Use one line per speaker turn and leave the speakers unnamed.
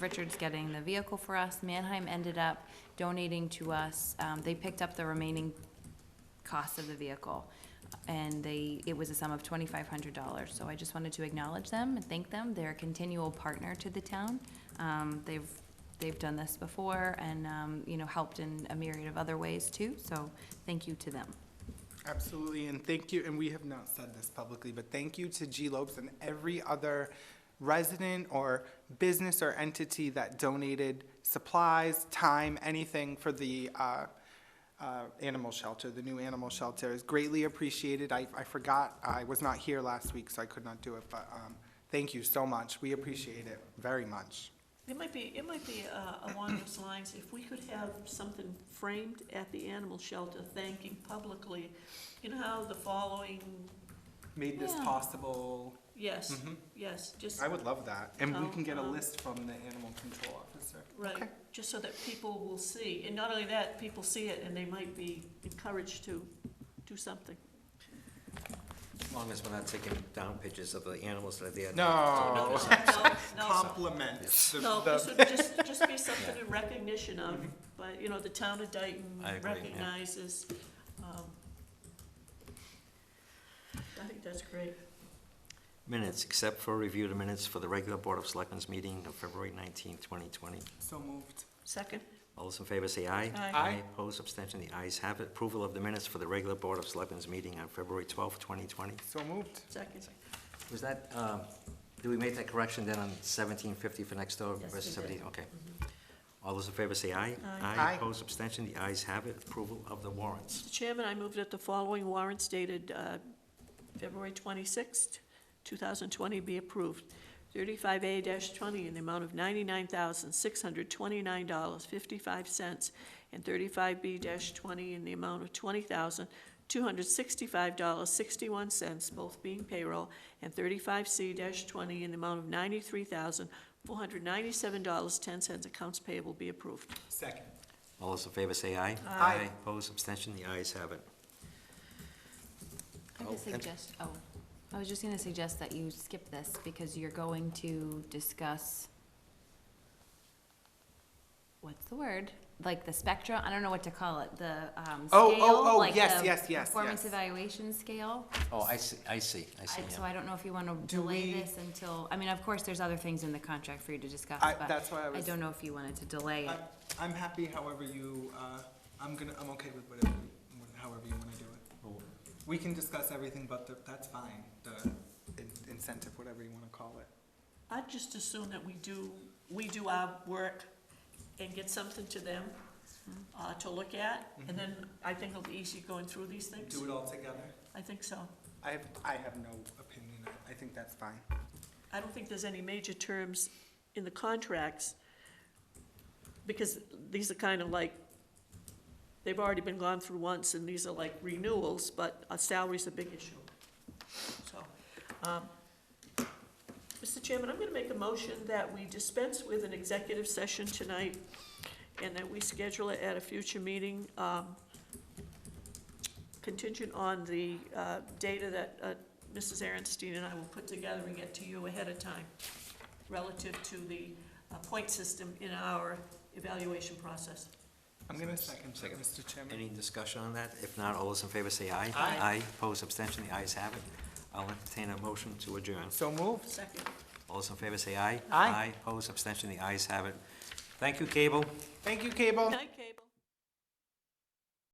Richard's getting the vehicle for us. Mannheim ended up donating to us, um, they picked up the remaining cost of the vehicle. And they, it was a sum of twenty-five hundred dollars, so I just wanted to acknowledge them and thank them. They're a continual partner to the town. Um, they've, they've done this before and, um, you know, helped in a myriad of other ways too, so thank you to them.
Absolutely, and thank you, and we have not said this publicly, but thank you to G Lopes and every other resident or business or entity that donated supplies, time, anything for the, uh, uh, animal shelter, the new animal shelter is greatly appreciated. I, I forgot, I was not here last week, so I could not do it, but, um, thank you so much. We appreciate it very much.
It might be, it might be uh, along those lines, if we could have something framed at the animal shelter thanking publicly, you know how the following,
Made this
Yeah.
possible.
yes, yes, just,
Mm-hmm. I would love that, and we can get a
Oh, um,
list from the animal control officer.
right, just so that people will see. And not only that, people see it and they might be encouraged to do something.
As long as we're not taking down pictures of the animals that are there.
No.
No,
Oh.
no, no,
Compliments.
no, no, this would just, just be something in recognition of, but, you know, the town of Dayton
I agree, yeah.
recognizes, um, I think that's great.
Minutes, except for review of minutes for the regular Board of Selectmen's meeting of February nineteenth, twenty twenty.
So moved.
Second?
All those in favor say aye.
Aye.
Aye.
Opposed, abstention, the ayes have it. Approval of the minutes for the regular Board of Selectmen's meeting on February twelfth, twenty twenty.
So moved.
Second.
Was that, um, did we make that correction then on seventeen fifty for next door
Yes,
versus
we did.
seventeen? Okay. All those in favor say aye.
Aye.
Aye.
Opposed, abstention, the ayes have it. Approval of the warrants.
Mr. Chairman, I move that the following warrants dated uh, February 26th, 2020 be approved. 35A-20 in the amount of $99,629.55, and 35B-20 in the amount of $20,265.61, both being payroll, and 35C-20 in the amount of $93,497.10 accounts payable be approved.
Second.
All those in favor say aye.
Aye.
Opposed, abstention, the ayes have it.
I
Oh,
would
and-
suggest, oh, I was just gonna suggest that you skip this because you're going to discuss, what's the word? Like the spectra, I don't know what to call it, the, um,
Oh, oh,
scale,
oh,
like
yes,
the
yes, yes,
Performance
yes.
evaluation scale.
Oh, I see, I see, I see,
I- So
yeah.
I don't know if you wanna
Do
delay
we-
this until, I mean, of course, there's other things in the contract for you to discuss,
I-
but
that's why I
I
was,
don't know if you wanted to delay it.
I- I'm happy however you, uh, I'm gonna, I'm okay with whatever, you- however you wanna do it.
Well,
We can discuss everything, but the- that's fine, the in- incentive, whatever you wanna call it.
I'd just assume that we do, we do our work and get something to them
Mm-hmm.
uh, to look at, and then I think it'll be easy going through these things.
Do it all together.
I think so.
I have, I have no opinion, I- I think that's fine.
I don't think there's any major terms in the contracts, because these are kind of like, they've already been gone through once, and these are like renewals, but a salary's a big issue. So, um, Mr. Chairman, I'm gonna make a motion that we dispense with an executive session tonight, and that we schedule it at a future meeting, um, contingent on the uh, data that uh, Mrs. Aaronstein and I will put together and get to you ahead of time relative to the uh, point system in our evaluation process.
I'm gonna second that,
Second.
Mr. Chairman.
Any discussion on that? If not, all those in favor say aye.
Aye.
opposed, abstention, the ayes have it. I'll entertain a motion to adjourn.
So moved.
Second.
All those in favor say aye.
Aye.
opposed, abstention, the ayes have it. Thank you, Cable.
Thank you, Cable.
Night,